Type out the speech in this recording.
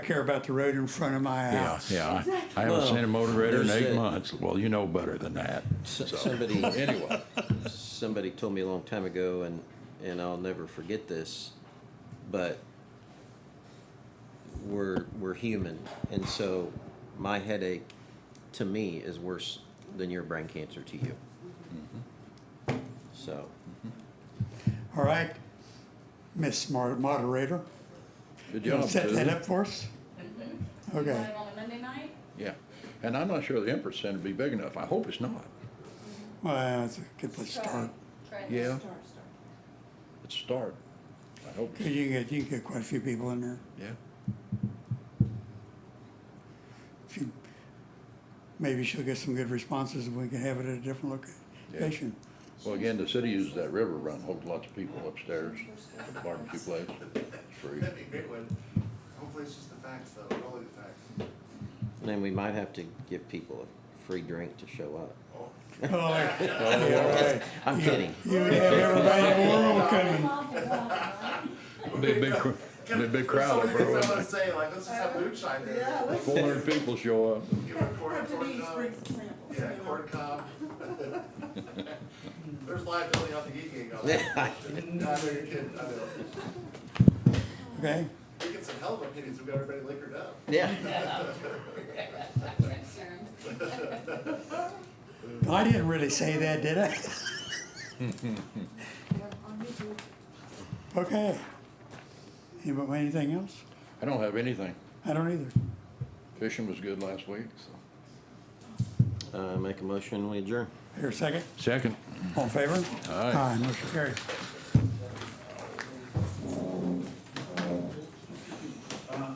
I care about the road in front of my Yeah, house. yeah. I haven't seen a motivator in there's eight a- months. Well, you know better than that. S- So, Somebody, Anyway, somebody told me a long time ago, and, and I'll never forget this, but we're, we're human. And so my headache to me is worse than your brain cancer to you. So, All right, Miss Mar- Moderator, good you job, wanna set that Susan. up for us? Okay, Live on a Monday night? Yeah. And I'm not sure the input center would be big enough. I hope it's not. well, that's a good place to start. Try it. Yeah. It's a start. I hope, 'Cause you can get, you can get quite a few people in there. yeah. If you- Maybe she'll get some good responses and we can have it at a different location. Well, again, the city uses that river run, holds lots of people upstairs at the barbecue place. It's free. That'd be a great one. Hopefully it's just the facts though, only the facts. and then we might have to give people a free drink to show up. Oh, yeah, right. I'm kidding. You would have everybody in the world coming. Be a big, cr- be a big crowd of That's the only thing I bro. wanna say, like, let's just have moonshine there. Yeah, let's Four hundred people show up. Give it a quarter, have quarter Denise cup. bring some samples. Yeah, you know. quarter cup. There's liability on the heat gang on that. No, I know you're kidding, I know. Okay, We get some hell of opinions, we got everybody liquored up. Yeah. I didn't really say that, did I? Okay. Anybody, anything else? I don't have anything. I don't either. Fishing was good last week, so. Uh, make a motion, we adjourn. Here, second. Second. All in favor? Aye. Motion carried.